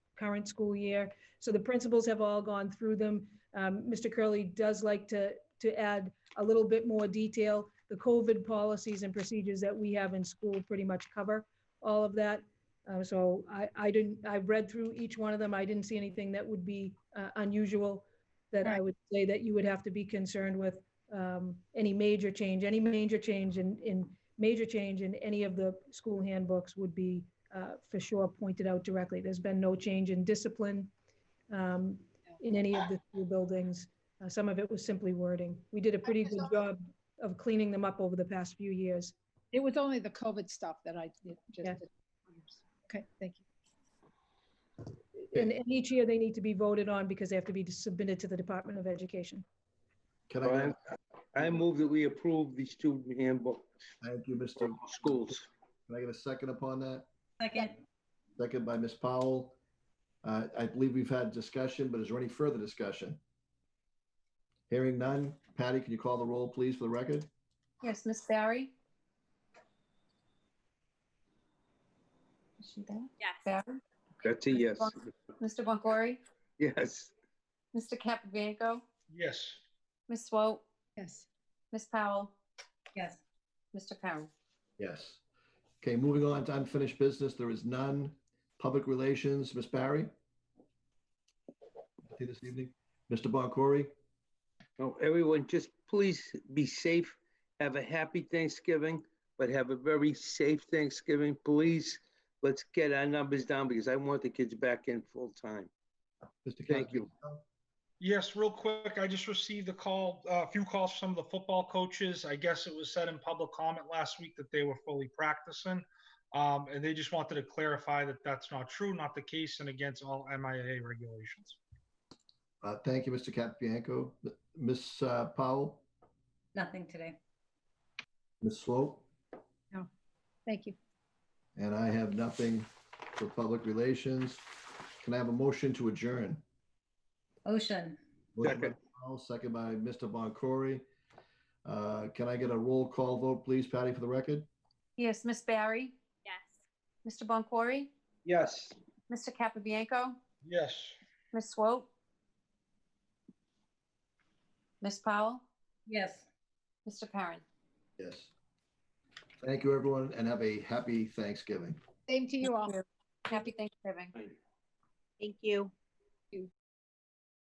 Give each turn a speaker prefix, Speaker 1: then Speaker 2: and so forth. Speaker 1: current school year. So the principals have all gone through them. Um, Mr. Curley does like to, to add a little bit more detail. The COVID policies and procedures that we have in school pretty much cover all of that. Uh, so I, I didn't, I read through each one of them. I didn't see anything that would be uh, unusual that I
Speaker 2: Right.
Speaker 1: would say that you would have to be concerned with um, any major change, any major change in, in, major change in any of the school handbooks would be uh, for sure pointed out directly. There's been no change in discipline um, in any of the school buildings. Uh, Some of it was simply wording. We did a pretty good job of cleaning them up over the past few years.
Speaker 2: It was only the COVID stuff that I did. just
Speaker 1: Yeah.
Speaker 2: did. Okay, thank you.
Speaker 1: And and each year, they need to be voted on because they have to be submitted to the Department of Education.
Speaker 3: Can I,
Speaker 4: I
Speaker 3: have-
Speaker 4: I move that we approve the student handbook
Speaker 3: thank you, Mr.
Speaker 4: for schools.
Speaker 3: Can I get a second upon that?
Speaker 5: Second,
Speaker 3: Second by Ms. Powell. Uh, I believe we've had discussion, but is there any further discussion? Hearing none. Patty, can you call the roll, please, for the record?
Speaker 6: Yes, Miss Barry? Is she there?
Speaker 5: yes.
Speaker 6: Barry?
Speaker 4: That's a yes.
Speaker 6: Mr. Boncory?
Speaker 4: Yes.
Speaker 6: Mr. Capabianco?
Speaker 4: Yes.
Speaker 6: Miss Swope?
Speaker 2: Yes,
Speaker 6: Miss Powell?
Speaker 5: Yes.
Speaker 6: Mr. Karen?
Speaker 3: Yes. Okay, moving on to unfinished business. There is none. Public relations, Ms. Barry? See This evening, Mr. Boncory?
Speaker 4: So everyone, just please be safe. Have a happy Thanksgiving, but have a very safe Thanksgiving. Please, let's get our numbers down because I want the kids back in full time.
Speaker 3: Mr.
Speaker 4: Thank you.
Speaker 3: Capabianco?
Speaker 7: Yes, real quick, I just received a call, uh, a few calls from the football coaches. I guess it was said in public comment last week that they were fully practicing. Um, and they just wanted to clarify that that's not true, not the case, and against all MIA regulations.
Speaker 3: Uh, Thank you, Mr. Capabianco. Ms. uh, Powell?
Speaker 5: Nothing today.
Speaker 3: Ms. Swope?
Speaker 2: thank you.
Speaker 3: And I have nothing for public relations. Can I have a motion to adjourn?
Speaker 5: Ocean,
Speaker 3: Motion by
Speaker 4: Second.
Speaker 3: Powell, Second by Mr. Boncory. Uh, Can I get a roll call vote, please, Patty, for the record?
Speaker 6: Yes, Miss Barry?
Speaker 5: yes.
Speaker 6: Mr. Boncory?
Speaker 4: Yes.
Speaker 6: Mr. Capabianco?
Speaker 7: Yes.
Speaker 6: Miss Swope? Miss Powell?
Speaker 5: Yes.
Speaker 6: Mr. Karen?
Speaker 3: Yes. Thank you, everyone, and have a happy Thanksgiving.
Speaker 2: Same to you all.
Speaker 6: Happy Thanksgiving.
Speaker 5: Thank you.